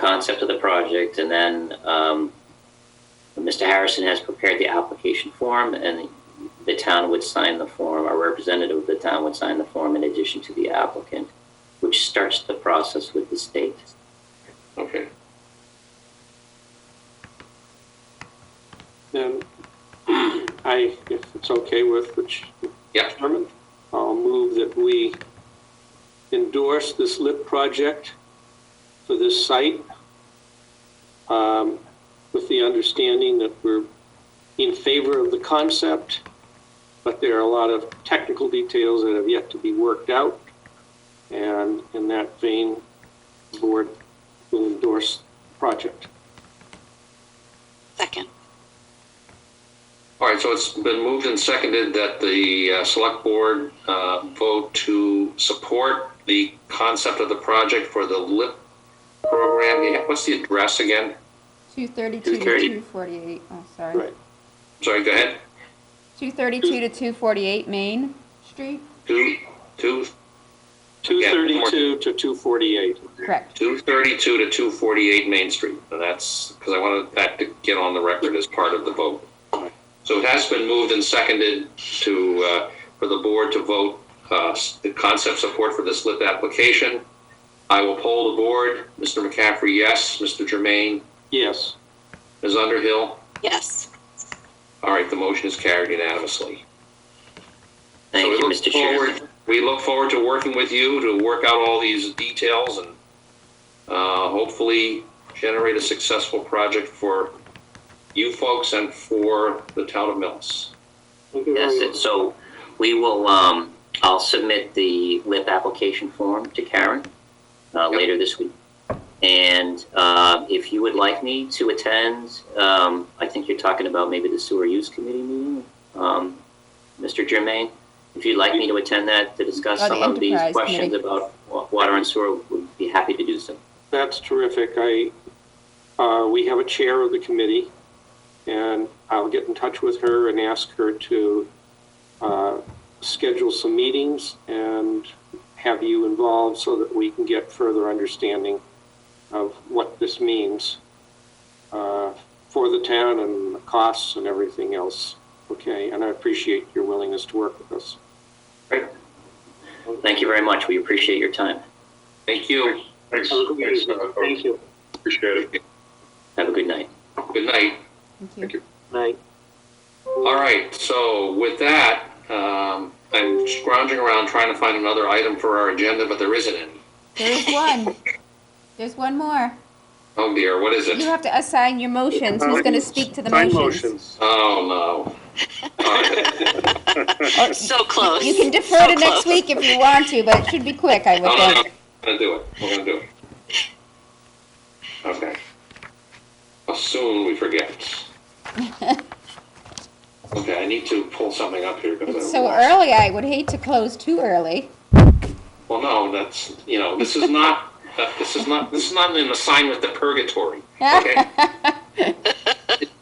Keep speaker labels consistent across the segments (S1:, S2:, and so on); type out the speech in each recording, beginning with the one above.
S1: concept of the project, and then um, Mr. Harrison has prepared the application form, and the town would sign the form, our representative of the town would sign the form in addition to the applicant, which starts the process with the state.
S2: Okay.
S3: Then I, if it's okay with which
S2: Yeah.
S3: Chairman, I'll move that we endorse this LIP project for this site um, with the understanding that we're in favor of the concept, but there are a lot of technical details that have yet to be worked out. And in that vein, the board will endorse the project.
S4: Second.
S2: All right, so it's been moved and seconded that the uh, select board uh, vote to support the concept of the project for the LIP program. Yeah, What's the address again?
S5: 232 to
S2: 230.
S5: 248, oh, sorry.
S3: Right.
S2: Sorry, go ahead.
S5: 232 to 248 Main Street?
S2: Two, two,
S3: 232 to 248.
S5: Correct.
S2: 232 to 248 Main Street. And that's, because I wanted that to get on the record as part of the vote. So it has been moved and seconded to, uh, for the board to vote uh, s- the concept support for this LIP application. I will poll the board. Mr. McCaffrey, yes. Mr. Germain,
S3: Yes.
S2: Ms. Underhill.
S4: Yes.
S2: All right, the motion is carried unanimously. So
S1: Thank
S2: we
S1: you,
S2: look
S1: Mr.
S2: forward-
S1: Chairman.
S2: We look forward to working with you to work out all these details and uh, hopefully generate a successful project for you folks and for the town of Millis.
S3: Thank you very
S1: Yes,
S3: much.
S1: it- so we will, um, I'll submit the LIP application form to Karen, uh,
S2: Yep.
S1: later this week. And, uh, if you would like me to attend, um, I think you're talking about maybe the sewer use committee meeting, um, Mr. Germain. If you'd like me to attend that to discuss
S5: Oh, the
S1: some of these
S5: enterprise
S1: questions
S5: committee.
S1: about wa- water and sewer, would be happy to do so.
S3: That's terrific. I, uh, we have a chair of the committee, and I'll get in touch with her and ask her to uh, schedule some meetings and have you involved so that we can get further understanding of what this means uh, for the town and the costs and everything else. Okay, and I appreciate your willingness to work with us.
S1: Thank you very much. We appreciate your time.
S2: Thank you.
S6: Thanks.
S3: Have a good
S6: Thanks,
S3: evening.
S6: uh,
S3: Thank you.
S6: Appreciate it.
S1: Have a good night.
S2: Good night.
S5: Thank
S6: Thank
S5: you.
S6: you.
S3: Night.
S2: All right, so with that, um, I'm scrounging around trying to find another item for our agenda, but there isn't any.
S5: There's one. There's one more.
S2: Oh dear, what is
S5: You
S2: it?
S5: have to assign your motions. Who's going to speak to the
S6: Sign
S5: motions?
S2: Oh no. All right.
S5: Or-
S4: So close.
S5: You can defer
S4: So
S5: to next
S4: close.
S5: week if you want to, but it should be quick, I
S2: No,
S5: would
S2: no, no,
S5: think.
S2: we're gonna do it, we're gonna do it. Okay. How Soon we forget. Okay, I need to pull something up here. 'cause
S5: It's
S2: I-
S5: so early, I would hate to close too early.
S2: Well, no, that's, you know, this is not, uh, this is not, this is not an assignment to purgatory, okay?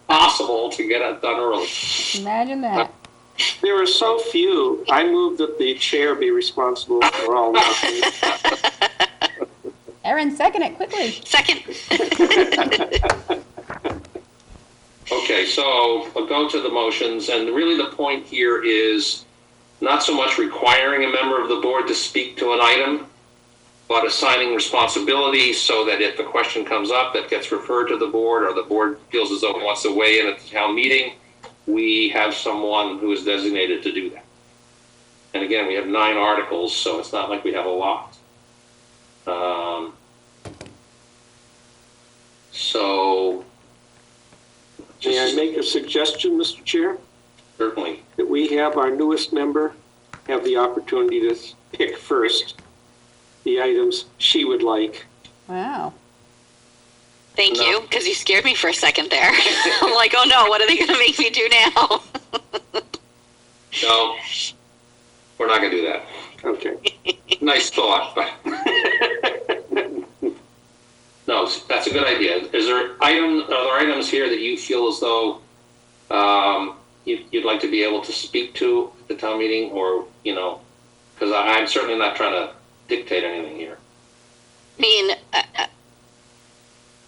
S2: Possible to get it done early.
S5: Imagine that.
S3: There are so few. I move that the chair be responsible for all motions.
S5: Erin, second it quickly.
S4: Second.
S2: Okay, so I'll go to the motions, and really the point here is not so much requiring a member of the board to speak to an item, but assigning responsibility so that if a question comes up that gets referred to the board, or the board feels as though it wants to weigh in at the town meeting, we have someone who is designated to do that. And again, we have nine articles, so it's not like we have a lot. Um, So.
S3: May I
S2: just-
S3: make a suggestion, Mr. Chair,
S2: Certainly.
S3: that we have our newest member have the opportunity to pick first the items she would like.
S5: Wow.
S4: Thank you, because you scared me for a second there. I'm like, oh no, what are they going to make me do now?
S2: No, we're not going to do that.
S3: Okay.
S2: Nice thought, but no, that's a good idea. Is there item, are there items here that you feel as though um, you, you'd like to be able to speak to at the town meeting, or you know, because I'm certainly not trying to dictate anything here.
S4: I mean, uh, I, I-